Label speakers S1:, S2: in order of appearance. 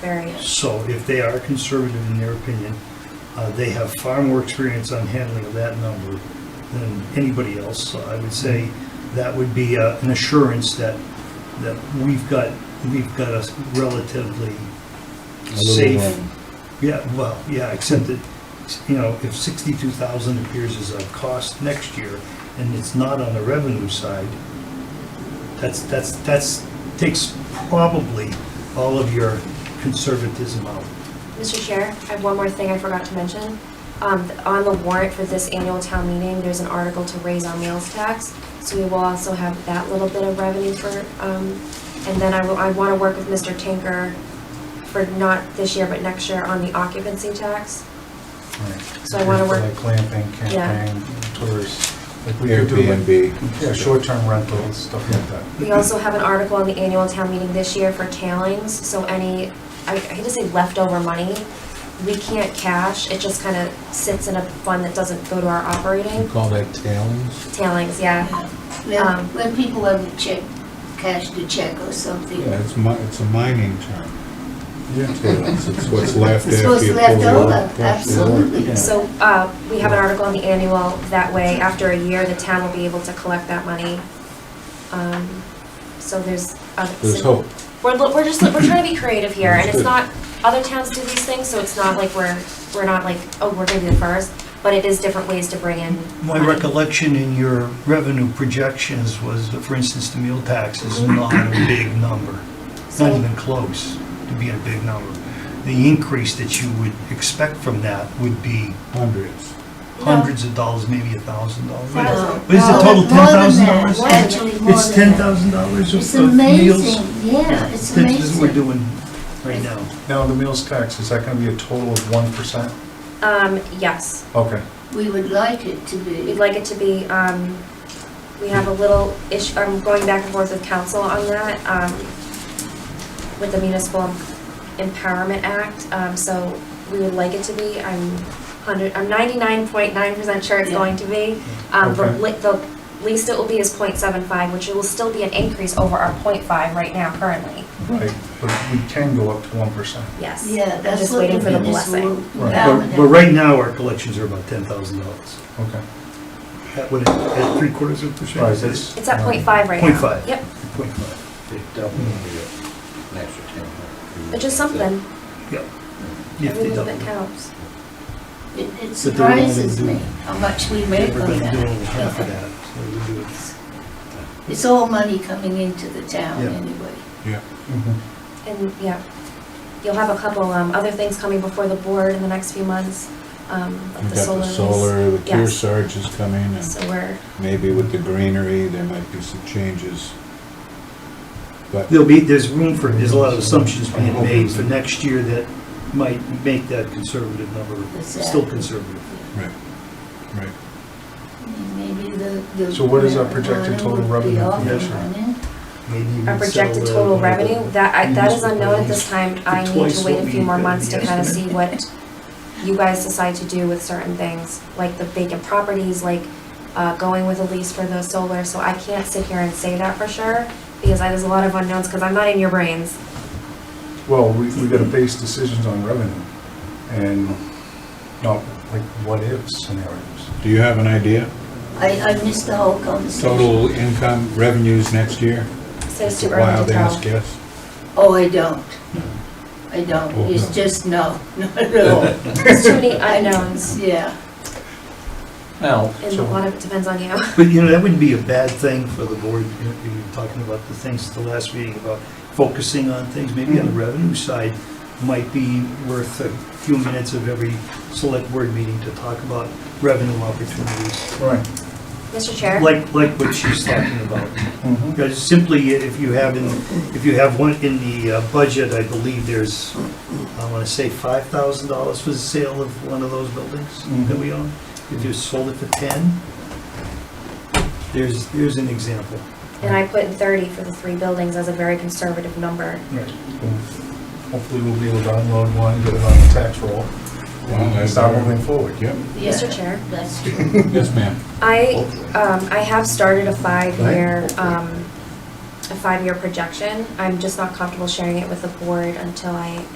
S1: variant.
S2: So if they are conservative in their opinion, uh, they have far more experience on handling of that number than anybody else. So I would say that would be uh, an assurance that, that we've got, we've got a relatively safe. Yeah, well, yeah, except that, you know, if sixty-two thousand appears as a cost next year and it's not on the revenue side, that's, that's, that's, takes probably all of your conservatism out.
S1: Mr. Chair, I have one more thing I forgot to mention. Um, On the warrant for this annual town meeting, there's an article to raise our meals tax, so we will also have that little bit of revenue for, um, and then I will, I want to work with Mr. Tinker for not this year, but next year on the occupancy tax. So I wanna work-
S3: Like glamping,
S1: Yeah.
S3: camping, tours, like we could do like, yeah,
S4: Airbnb.
S3: short-term rentals, stuff like that.
S1: We also have an article on the annual town meeting this year for tailings, so any, I I hate to say leftover money, we can't cash, it just kind of sits in a fund that doesn't go to our
S4: You
S1: operating.
S4: call that tailings?
S1: Tailings, yeah.
S5: When,
S1: Um,
S5: when people have a check, cash the check or something.
S4: Yeah, it's mi, it's a mining term. Tailings, it's what's left
S5: It's
S4: after
S5: what's
S4: you pull
S5: left
S4: it
S5: over,
S4: out.
S5: absolutely.
S1: So, uh, we have an article on the annual, that way, after a year, the town will be able to collect that money. Um, So there's. other-
S4: There's hope.
S1: We're, li- we're just, we're trying to be creative here, and it's
S4: Understood.
S1: not, other towns do these things, so it's not like we're, we're not like, oh, we're gonna be the first, but it is different ways to bring in.
S2: My
S1: money.
S2: recollection in your revenue projections was, that, for instance, the meal tax is not a big number, not
S1: So-
S2: even close to being a big number. The increase that you would expect from that would be
S4: Hundreds.
S1: No.
S2: hundreds of dollars, maybe a thousand dollars.
S5: Thousand.
S2: But is the
S5: No,
S2: total
S5: more than that,
S2: $10,000?
S5: Actually, more
S2: It's ten
S5: than that.
S2: thousand dollars
S5: It's
S2: of meals.
S5: amazing, yeah, it's amazing.
S2: This is what we're doing right now.
S3: Now, the meals tax, is that gonna be a total of one percent?
S1: Um, yes,
S3: Okay,
S5: We would like it to be.
S1: we'd like it to be, um, we have a little issue, I'm going back and forth with council on that, um, with the Municipal Empowerment Act, um, so we would like it to be, I'm hundred, I'm ninety-nine point nine percent sure it's
S5: Yeah.
S1: going to be. Um, but
S3: Okay.
S1: li- the least it will be is 0.75, which it will still be an increase over our 0.5 right now currently,
S3: right, but we can go up to one percent.
S1: yes.
S5: Yeah,
S1: I'm
S5: that's
S1: just
S5: what
S1: waiting
S5: the
S1: for the
S5: municipal.
S1: blessing.
S3: Right.
S2: But but right now, our collections are about ten thousand dollars.
S3: Okay.
S2: That would, at three quarters of a percent?
S3: Right, that's-
S1: It's at
S3: Um,
S1: 0.5 right now.
S2: 0.5.
S1: Yep,
S2: Point five,
S1: which is something,
S2: yeah.
S1: every
S2: If they
S1: little
S2: double
S1: bit
S2: it.
S1: counts.
S5: It it
S2: But they're only
S5: surprises
S2: doing-
S5: me how much we make on
S2: Everybody doing half of
S5: that.
S2: that, so we do it.
S5: It's all money coming into the town
S2: Yeah.
S5: anyway.
S4: Yeah.
S3: Mhm.
S1: And, yeah, you'll have a couple, um, other things coming before the board in the next few months, um,
S4: You
S1: of
S4: got
S1: the
S4: the
S1: solar.
S4: solar, the
S1: Yes.
S4: Kearsarge is coming, and
S1: So we're,
S4: maybe with the greenery, there might be some changes. But
S2: There'll be, there's room for, there's a lot of assumptions being made for next year that might make that conservative number still
S5: Exactly.
S2: conservative.
S4: Right, right.
S5: I mean, Maybe the, the.
S3: So what is our projected total
S5: marijuana would be
S3: revenue
S5: off
S2: from
S5: and
S2: this?
S5: running.
S2: Maybe you
S1: our
S2: can sell
S1: projected
S2: the-
S1: total revenue, that, I- that is unknown at this time, I need
S2: Twice
S1: to
S2: what
S1: wait a
S2: we
S1: few more
S2: did,
S1: months to
S2: yes.
S1: kind of see what you guys decide to do with certain things, like the vacant properties, like, uh, going with a lease for the solar, so I can't sit here and say that for sure, because I- there's a lot of unknowns, because I'm not in your brains.
S3: Well, we, we gotta base decisions on revenue and not like what-if scenarios.
S4: Do you have an idea?
S5: I, I missed the whole conversation.
S4: Total income revenues next year?
S1: So it's too early
S4: Wild
S1: to
S4: ass
S1: tell.
S4: guess.
S5: Oh, I don't. I don't.
S4: Oh, no.
S5: It's just no, not at all.
S1: There's too many unknowns,
S5: Yeah.
S6: Now,
S1: and a lot of it depends on you.
S2: But, you know, that wouldn't be a bad thing for the board, you know, you were talking about the things at the last meeting, about focusing on things, maybe on the revenue side, might be worth a few minutes of every select board meeting to talk about revenue opportunities,
S3: Right.
S1: Mr. Chair?
S2: like, like what she's talking about.
S3: Mhm.
S2: Because Simply, if you have, in if you have one in the uh, budget, I believe there's, I want to say $5,000 for the sale of one of those buildings that we own. If you sold it for 10, there's, there's an example.
S1: And I put in thirty for the three buildings as a very conservative number.
S2: Right.
S3: Hopefully, we'll be able to unload one, get it on the tax roll, and start moving forward.
S4: Yep,
S5: Yeah,
S1: Mr. Chair?
S5: That's true.
S4: yes, ma'am.
S1: I, um, I have started a five-year, um, a five-year projection. I'm just not comfortable sharing it with the board until I